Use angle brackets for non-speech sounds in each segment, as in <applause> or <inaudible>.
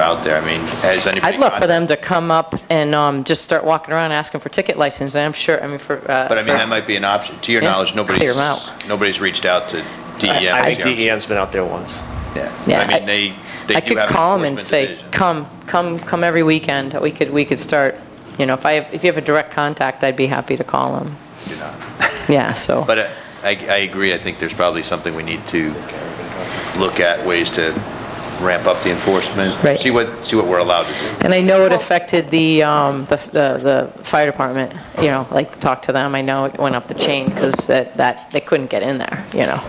out there? I mean, has anybody? I'd love for gone- them to come up and um, just start walking around asking for ticket licenses, and I'm sure, I mean, for... But I mean, that might be an option. To your Yeah, knowledge, clear 'em nobody's, out. nobody's reached out to DEM. I E think is the DEM's been out there once. answer. Yeah, Yeah, I mean, I- they, they I do could have an call them and enforcement say, division. come, come, come every weekend, we could, we could start, you know, if I, have- if you have a direct contact, I'd be happy to call them. You know. Yeah, so, But uh, I, I agree, I think there's probably something we need to look at, ways to ramp up the enforcement. Right. See what, see what we're allowed to do. and I know it affected the, um, the, the the fire department, you know, like, talk to them, I know it went up the chain, because that, that, they couldn't get in there, you know,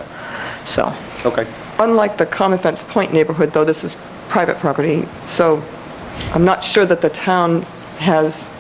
so, Okay. Unlike the Common Fence Point neighborhood, though, this is private property, so I'm not sure that the town has,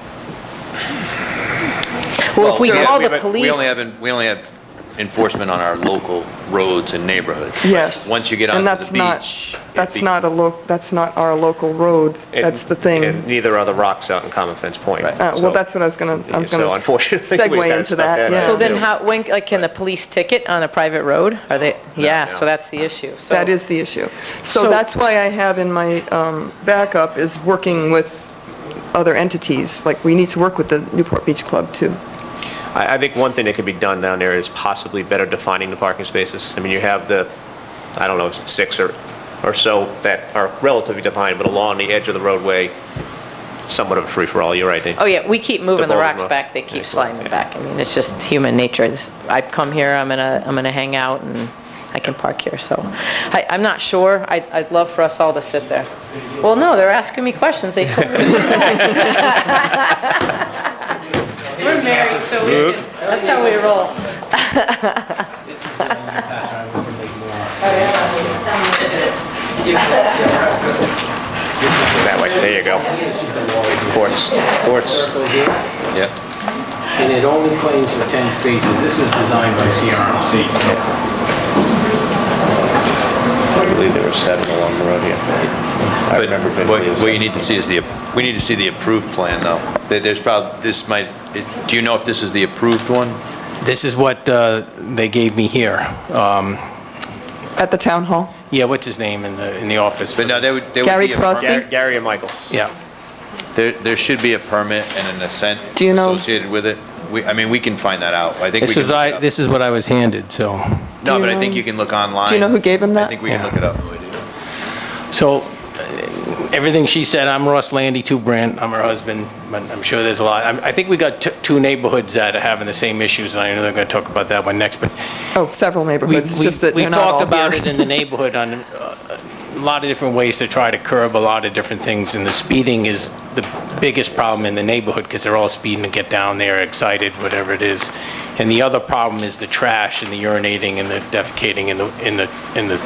well, if we yeah, call the but police... We only have, en- we only have enforcement on our local roads and neighborhoods. yes. Once you get And onto that's the not- beach. it That's be- not a lo, that's not our local road, that's the And thing. neither are the rocks out in Common Fence Point. Right. Uh, So- Well, that's what I was going to, I was going to. So unfortunately, we've Segue gotta into step that, that yeah. up. So then Yeah. how, when, like, can the police ticket on a private road? Are they, yeah, so no. that's the issue, so. That is the issue. So So- that's why I have in my um, backup is working with other entities, like we need to work with the Newport Beach Club too. I, I think one thing that could be done down there is possibly better defining the parking spaces. I mean, you have the, I don't know, six or, or so that are relatively defined, but along the edge of the roadway, somewhat of a free-for-all, you're right, Dave. Oh, yeah, we keep moving the bowling rocks rock. back, they keep sliding them back. I mean, it's just human nature. It's- I've come here, I'm gonna, I'm gonna hang out, and I can park here, so. I, I'm not sure, I'd, I'd love for us all to sit there. Well, no, they're asking me questions, they told me. <laughs> We're married, so we, can- that's how we roll. That way, there you go. Courts, courts. Circle here, Yeah, and it only claims for 10 spaces. This was designed by CRMC, so I believe there were seven along the road here. I but remember what, vividly. it was what you seven. need to see is the, we need to see the approved plan, though. There- There's probably, this might, it- do you know if this is the approved one? this is what uh, they gave me here. Um, At the town hall? Yeah, what's his name in the, in the office? But no, there would, there would be. Gary a permit. Crosby? Gar- Gary and Michael. Yeah. There, there should be a permit and an assent Do you know- associated with it. We, I mean, we can find that out. I think we This can is, look it I, up. this is what I was handed, so. No, Do but you I think know- you can look online. do you know who gave him I that? think we can Yeah. look it up. So, uh, everything she said, I'm Ross Landy, too, Brandt, I'm her husband, but I'm sure there's a lot. I'm- I think we got t- two neighborhoods that are having the same issues, and I know they're going to talk about that one next, but Oh, several we- neighborhoods, it's just that we- they're not all We talked about here. it in the neighborhood on uh, a lot of different ways to try to curb a lot of different things, and the speeding is the biggest problem in the neighborhood, because they're all speeding to get down there, excited, whatever it is. And the other problem is the trash and the urinating and the defecating in the, in the, in the,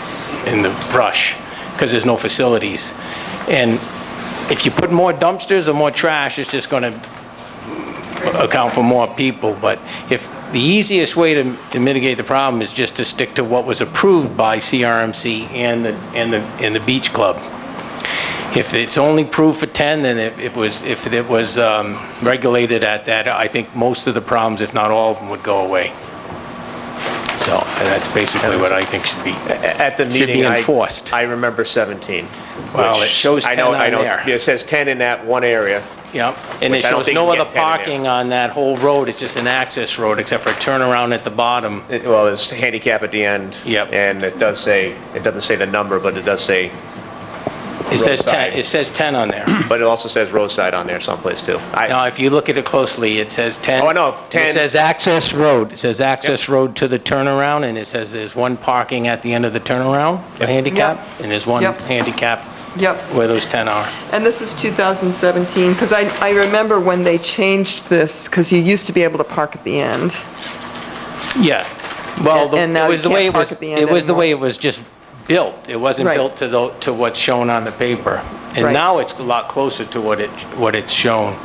in the brush, because there's no facilities. And if you put more dumpsters or more trash, it's just going to account for more people, but if, the easiest way to to mitigate the problem is just to stick to what was approved by CRMC and the, and the, and the beach club. If it's only approved for 10, then it it was, if it was um, regulated at that, I think most of the problems, if not all of them, would go away. So and that's basically what I think should be. At the Should be meeting, I... enforced. I remember 17. Well, which it shows I know- 10 I on know- there. It says 10 in that one area. Yep, and it Which I don't shows think no you can other get 10 in there. parking on that whole road, it's just an access road, except for a turnaround at the bottom. It- Well, it's handicap at the end. Yep. And it does say, it doesn't say the number, but it does say, It says 10, Roadside. it says 10 on there. but it also says roadside on there someplace too. I, Now, if you look at it closely, it says 10. Oh, I know, It 10. says access road. It says access road to the turnaround, and it says there's one parking at the end of the turnaround, for handicap, Yep. and there's one Yep. handicap Yep. where those 10 are. And this is 2017, because I, I remember when they changed this, because you used to be able to park at the end. Yeah. Well, the- And- and now it you was the can't way it park was, at the end it was the anymore. way it was just built. It wasn't Right. built to the, to what's shown on the paper. And Right. now it's a lot closer to what it, what it's shown.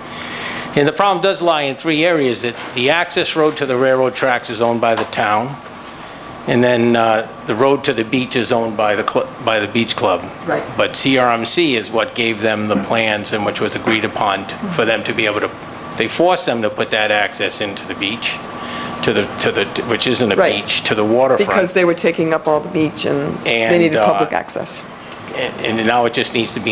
And the problem does lie in three areas. It's the access road to the railroad tracks is owned by the town. And then uh, the road to the beach is owned by the, cl- by the beach club. Right. But CRMC is what gave them the plans and which was agreed upon t- for them to be able to, they forced them to put that access into the beach, to the, to the, which isn't a Right. beach, to the waterfront. Because they were taking up all the beach and they And, needed uh, public access. And and now it just needs to be